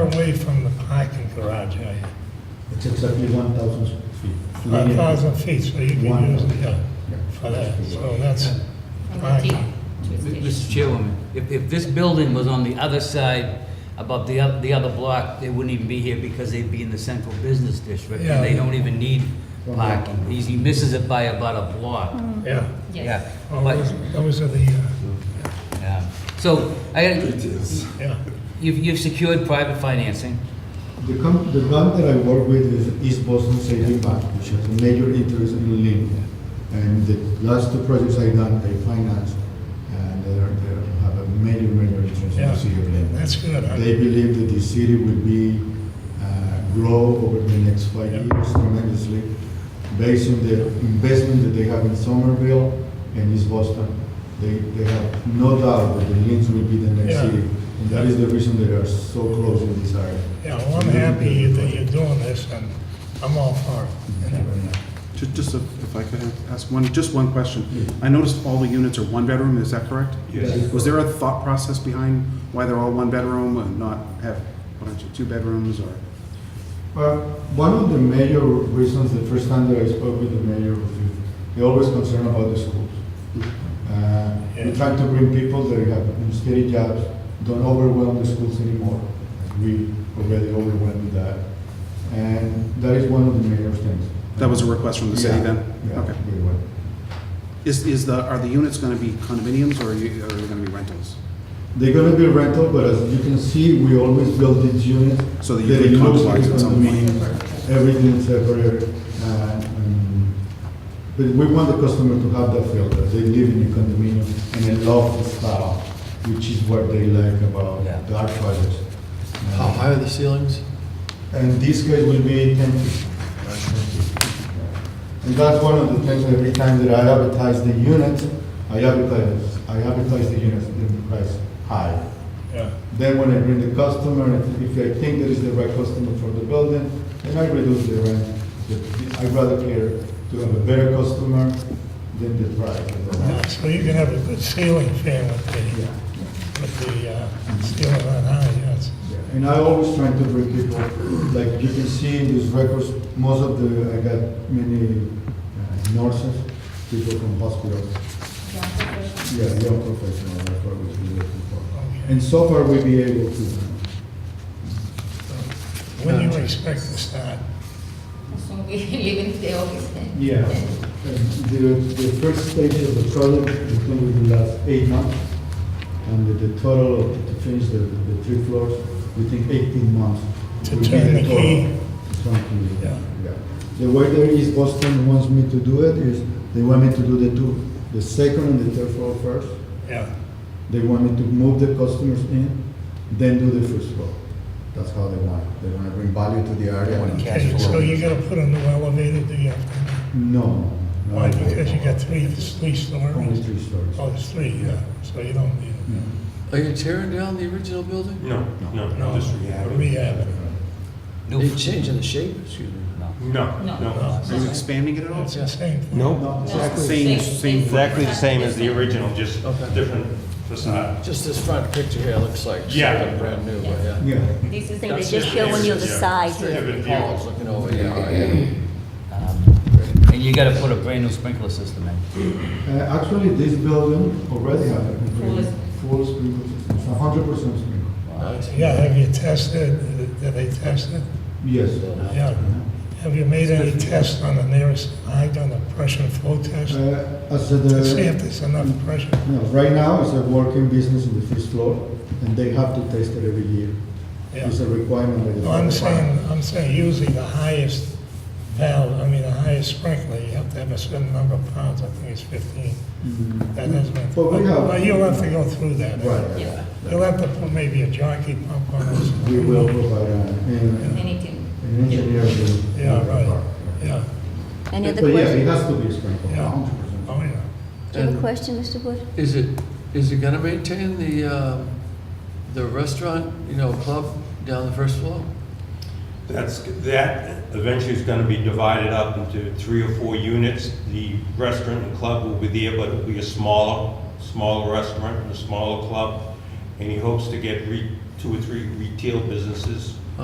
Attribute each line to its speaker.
Speaker 1: away from the parking garage area?
Speaker 2: It's exactly 1,000 feet.
Speaker 1: One thousand feet, so you can
Speaker 2: One.
Speaker 1: use it, yeah,
Speaker 2: Yeah.
Speaker 1: for that, so that's fine.
Speaker 3: Mr. Chairwoman, if, if this building was on the other side, above the, oth- the other block, they wouldn't even be here because they'd be in the central business district, and they
Speaker 1: Yeah.
Speaker 3: don't even need parking. He's- He misses it by about a block.
Speaker 1: Yeah,
Speaker 3: Yeah.
Speaker 1: well,
Speaker 3: but,
Speaker 1: those, those are the, uh,
Speaker 3: yeah. So, I,
Speaker 1: yeah,
Speaker 3: you've, you've secured private financing,
Speaker 2: The com- the bank that I work with is East Boston Saving Bank, which has a major interest in Lynn. And the last two projects I done, I financed, and they are, they are- have a major, major interest in
Speaker 1: Yeah.
Speaker 2: the city of Lynn.
Speaker 1: that's good. I-
Speaker 2: They believe that the city will be, uh, grow over the next five
Speaker 1: Yeah.
Speaker 2: years tremendously, based on the investment that they have in Somerville and East Boston. They, they have no doubt that the Lynn's will be the next
Speaker 1: Yeah.
Speaker 2: city. And that is the reason they are so close in this area.
Speaker 1: Yeah, well, I'm happy that you're doing this, and I'm all for it. anyway.
Speaker 4: Ju- Just if if I could ask one, just one question. I noticed all the units are one bedroom, is that correct?
Speaker 2: Yes.
Speaker 4: Was there a thought process behind why they're all one bedroom and not have, what are you, two bedrooms or?
Speaker 2: Well, one of the major reasons, the first time that I spoke with the mayor, was he- he always concerned about the schools. Uh,
Speaker 1: Yeah.
Speaker 2: We're trying to bring people that have steady jobs, don't overwhelm the schools anymore. We already overwhelmed that. And that is one of the major things.
Speaker 4: That was a request from the city
Speaker 2: Yeah,
Speaker 4: then?
Speaker 2: Yeah,
Speaker 4: Okay.
Speaker 2: we were.
Speaker 4: Is, is the, are the units gonna be condominiums or are you, are they gonna be rentals?
Speaker 2: They're gonna be rental, but as you can see, we always build these units.
Speaker 4: So that you could
Speaker 2: it looks
Speaker 4: compromise
Speaker 2: like
Speaker 4: at some point.
Speaker 2: condominiums, Everything separate, uh, um, but we want the customer to have that feel that they live in a condominium and they love the style, which is what they like about
Speaker 3: Yeah.
Speaker 2: the art projects.
Speaker 5: How high are the ceilings?
Speaker 2: And this guy will be ten feet. right, 10 feet. And that's one of the things, every time that I advertise the units, I advertise, I advertise the units, the price high.
Speaker 1: Yeah,
Speaker 2: Then when I bring the customer, and if I think that is the right customer for the building, then I reduce the rent. The- I'd rather clear to have a better customer than the price. of the
Speaker 1: Yeah,
Speaker 2: rent.
Speaker 1: so you can have a good ceiling fan with the,
Speaker 2: Yeah,
Speaker 1: with the uh, ceiling on high, yes.
Speaker 2: yeah. And I always try to bring people, like you can see in these records, most of the, I got many uh, nurses, people from hospitals. Yeah, young professional, that's what we're looking for. And so far, we've been able to.
Speaker 1: When do you expect to start?
Speaker 6: Son que living the office.
Speaker 2: Yeah, and the, the first stage of the project is going to be the last eight months, and the, the total of, to finish the, the three floors, we think eighteen months.
Speaker 1: To
Speaker 2: will be
Speaker 1: turn the
Speaker 2: total.
Speaker 1: key.
Speaker 2: Something like that,
Speaker 1: Yeah.
Speaker 2: yeah. The way that East Boston wants me to do it is, they want me to do the two, the second and the third floor first.
Speaker 1: Yeah,
Speaker 2: They want me to move the customers in, then do the first floor. That's how they want it. They want to bring value to the area.
Speaker 1: Okay, so you gotta put a new elevator, do you?
Speaker 2: No. no,
Speaker 1: Why,
Speaker 2: no.
Speaker 1: because you got three, three stories?
Speaker 2: Only three stories.
Speaker 1: Oh, it's three, yeah, so you don't need it.
Speaker 5: Are you tearing down the original building?
Speaker 7: No, no,
Speaker 1: No,
Speaker 7: no, just rehabbing.
Speaker 1: rehab.
Speaker 3: new,
Speaker 5: Are you changing the shape? Excuse me.
Speaker 3: no.
Speaker 7: No,
Speaker 6: No.
Speaker 7: no.
Speaker 4: Are you expanding it at all?
Speaker 1: It's the same thing.
Speaker 7: Nope.
Speaker 2: Exactly.
Speaker 4: Same, same.
Speaker 7: Exactly the same as the original, just
Speaker 5: Okay.
Speaker 7: different facade.
Speaker 5: Just this front picture here looks like
Speaker 7: Yeah.
Speaker 5: something brand new, but yeah.
Speaker 2: Yeah.
Speaker 6: This is
Speaker 8: They
Speaker 6: the
Speaker 8: they just show on the other
Speaker 7: Yeah.
Speaker 8: side
Speaker 7: Sort of
Speaker 8: here.
Speaker 7: a deal.
Speaker 5: Paul's looking over, yeah, oh, yeah.
Speaker 3: Um, And you gotta put a brand new sprinkler system in.
Speaker 2: Uh, Actually, this building already has a complete full sprinkler system, it's hundred percent sprinkler.
Speaker 5: Nice.
Speaker 1: Yeah, have you tested, did they test it?
Speaker 2: Yes.
Speaker 1: Yeah.
Speaker 2: Mm-hmm.
Speaker 1: Have you made any tests on the nearest, I done a pressure flow test?
Speaker 2: Uh, As
Speaker 1: To see if
Speaker 2: the,
Speaker 1: there's enough pressure.
Speaker 2: no, right now, it's a working business in the first floor, and they have to test it every year.
Speaker 1: Yeah.
Speaker 2: It's a requirement. that is-
Speaker 1: No, I'm saying, I'm saying usually the highest valve, I mean, the highest sprinkler, you have to have a certain number of pounds, I think it's fifteen.
Speaker 2: Mm.
Speaker 1: That has been.
Speaker 2: But we have-
Speaker 1: Well, you'll have to go through that.
Speaker 2: Right,
Speaker 6: Yeah,
Speaker 1: You'll have to put maybe a jockey pump on it.
Speaker 2: we will provide uh, an
Speaker 6: anything.
Speaker 2: an engineer. to-
Speaker 1: Yeah, right, yeah,
Speaker 8: Any other
Speaker 2: But yes, it
Speaker 8: questions?
Speaker 2: has to be sprinkled,
Speaker 1: Yeah.
Speaker 2: hundred percent.
Speaker 1: oh, yeah.
Speaker 8: Do you have a question, Mr. Wood?
Speaker 5: Is it, is it gonna maintain the, um, the restaurant, you know, club down the first floor?
Speaker 7: That's, that eventually is gonna be divided up into three or four units. The restaurant and club will be there, but it'll be a smaller, smaller restaurant and a smaller club. And he hopes to get re, two or three retail businesses